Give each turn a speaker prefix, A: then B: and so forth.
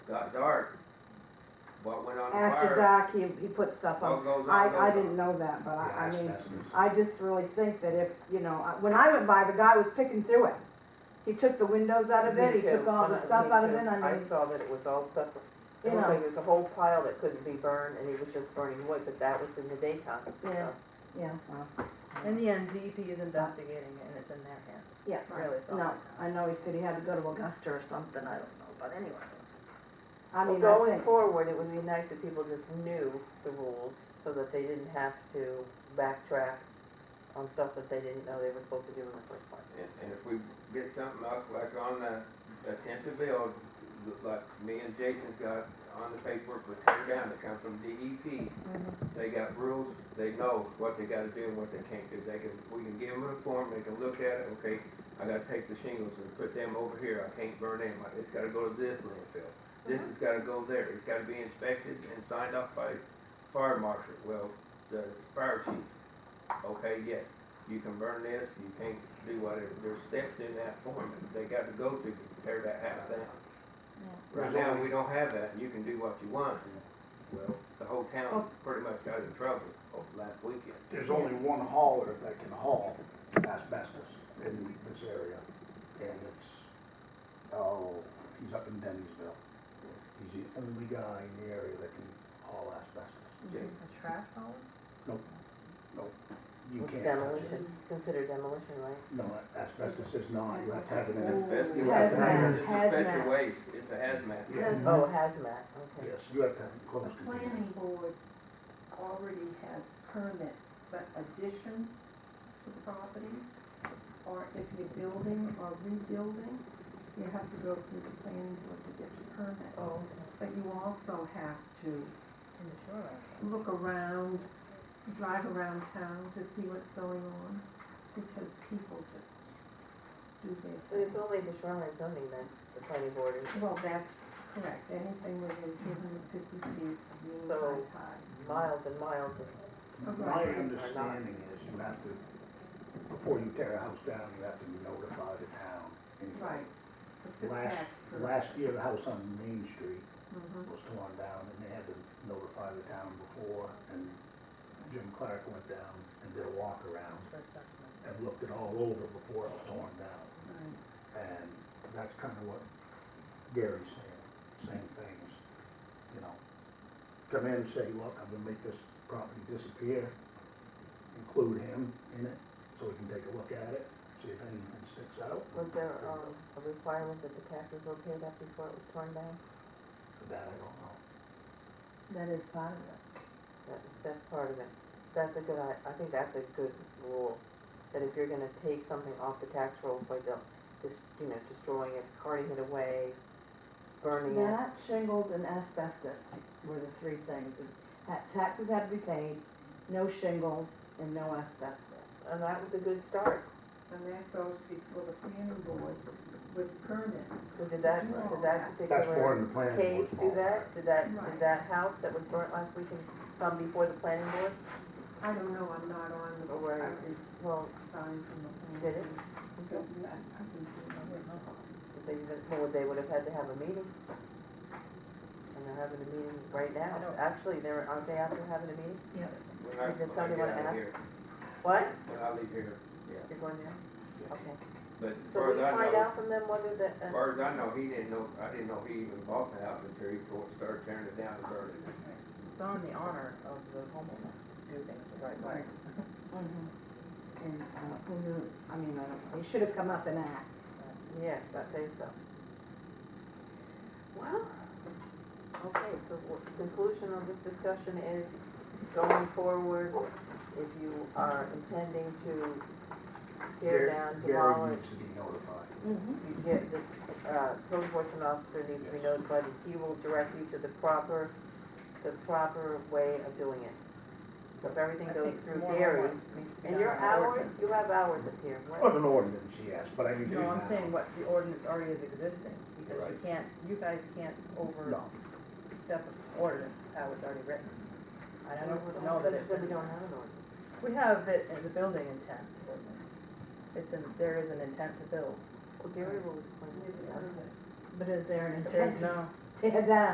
A: got dark, what went on
B: After
A: fire,
B: dark, he, he put stuff
A: what
B: on.
A: goes on, goes
B: I, I
A: on.
B: didn't know that, but I, I
C: Yeah,
B: mean,
C: that's- that's-
B: I just really think that if, you know, I- when I went by, the guy was picking through it. He took the windows out of it, he
D: Me too.
B: took all the
D: Uh,
B: stuff
D: me
B: out of
D: too.
B: it, I
D: I
B: mean,
D: saw that it was all separate.
B: You
D: It looked
B: know.
D: like it was a whole pile that couldn't be burned, and he was just burning wood, but that was in the daytime,
B: Yeah.
D: so.
B: yeah, well,
E: In the end, DEP is investigating it and it's in their hands.
B: yeah.
E: Really, it's all
B: No,
E: I
B: I know he said he had to go to Augusta or something, I don't know, but anyway. I
D: Well,
B: mean, I
D: Going
B: think,
D: forward, it would be nice if people just knew the rules, so that they didn't have to backtrack on stuff that they didn't know they were supposed to do in the first place.
A: And, and if we get something up, like on the, the tenth bill, like me and Jason got on the paperwork, was turned down, it comes from DEP.
B: Mm-hmm.
A: They got rules, they know what they gotta do and what they can't do, they can, we can give them a form, they can look at it, okay, I gotta take the shingles and put them over here, I can't burn them, it's gotta go to this landfill. This has gotta go there, it's gotta be inspected and signed off by fire marshal, well, the fire chief. Okay, yes, you can burn this, you can't do whatever, there's steps in that form that they got to go through to tear that house down. Right now, we don't have that, you can do what you want. Well, the whole
D: Oh.
A: town pretty much got in trouble over last weekend.
C: There's only one hauler that can haul asbestos in this area, and it's, oh, he's up in Dennisville. He's the only guy in the area that can haul asbestos.
E: A trash hole?
C: You
D: It's
C: can't touch it.
D: demolition, it's considered demolition, right?
C: No, asbestos is not, you have to have it in a,
A: Asbestos, it's
B: Hazmat, hazmat.
A: special waste, it's a hazmat.
C: Yeah.
D: Oh, hazmat, okay.
C: yes, you have to have it
F: The
C: closed.
F: planning board already has permits, but additions to properties, or if you're building or rebuilding, you have to go through the planning board to get your permit.
D: Oh,
F: But you also have to
E: In the shoreline.
F: look around, drive around town to see what's going on, because people just do
D: but
F: their
D: it's
F: thing.
D: only the shoreline zoning then, the planning board is
F: Well, that's correct, anything within two hundred fifty feet of mean
D: So-
F: high tide.
D: miles and miles of
C: My understanding is you have to, before you tear a house down, you have to notify the town. And
F: Right. The
C: Last-
F: tax for-
C: Last year, the house on Main Street
F: Mhm.
C: was torn down and they had to notify the town before and Jim Clark went down and did a walk around and looked it all over before it was torn down.
F: Right.
C: And that's kind of what Gary's saying, same things, you know. Come in, say, look, I'm gonna make this property disappear, include him in it so we can take a look at it, see if anything sticks out.
D: Was there, um, a requirement that the taxes were paid up before it was torn down?
C: That I don't know.
B: that is part of it.
D: That, that's part of it. That's a good, I, I think that's a good rule, that if you're gonna take something off the tax rolls, like, um, just, you know, destroying it, carting it away, burning it.
B: That, shingles and asbestos were the three things. Ha- Taxes had to be paid, no shingles and no asbestos.
D: And that was a good start.
F: And that goes before the planning board with permits.
D: So did that, did that
C: That's more
D: particular
C: than the planning board.
D: case do
C: fault.
D: that? Did that,
F: Right.
D: did that house that was burnt last weekend come before the planning board?
F: I don't know, I'm not on the,
D: Or
F: I
D: where-
F: did
D: Well,
F: sign from the planning.
D: Did it?
F: board. Doesn't, that doesn't do nothing.
D: if they, didn't- well, they would have had to have a meeting. And they're having a meeting right now.
E: I don't-
D: Actually, they're, aren't they after having a meeting?
A: When I-
D: Did
A: when I
D: somebody
A: get
D: wanna
A: out of
D: ask?
A: here-
D: What?
A: When I leave here,
D: You're going there?
A: Yeah.
D: Okay.
A: but as
D: So
A: far
D: we
A: as I
D: find
A: know,
D: out from them whether the,
A: as
D: uh,
A: far as I know, he didn't know, I didn't know he even bought the house until he tore- started tearing it down and burning it.
E: It's on the honor of the homeowner to do things the right way.
B: And, uh, who knew, I mean, I don't know, he should have come up and asked.
D: yes, that says so. Well, okay, so what- conclusion of this discussion is going forward, if you are intending to tear
C: Gary-
D: down,
C: Gary
D: demolish,
C: needs to be notified.
B: Mm-hmm.
D: you get this, uh, code enforcement officer needs to be
C: Yes.
D: notified, and he will direct you to the proper, the proper way of doing it. So if everything
E: I
D: goes
E: think
D: through
E: more
D: Gary,
E: homework uh, needs to be
D: and
E: done
D: your
E: on the
D: hours,
E: ordinance.
D: you have hours up here,
C: It
E: Oh,
C: was
D: what?
C: an ordinance, yes, but I can give you
E: No, I'm
C: now.
E: saying what the ordinance already is existing, because you
A: Right.
E: can't, you guys can't
C: No,
E: overstep the ordinance, how it's already written. I don't know that it's.
D: Said we don't have an ordinance.
E: We have it in the building intent ordinance. It's in, there is an intent to build.
D: Well, Gary will explain it to the other
B: But is there an
E: No,
B: tear down.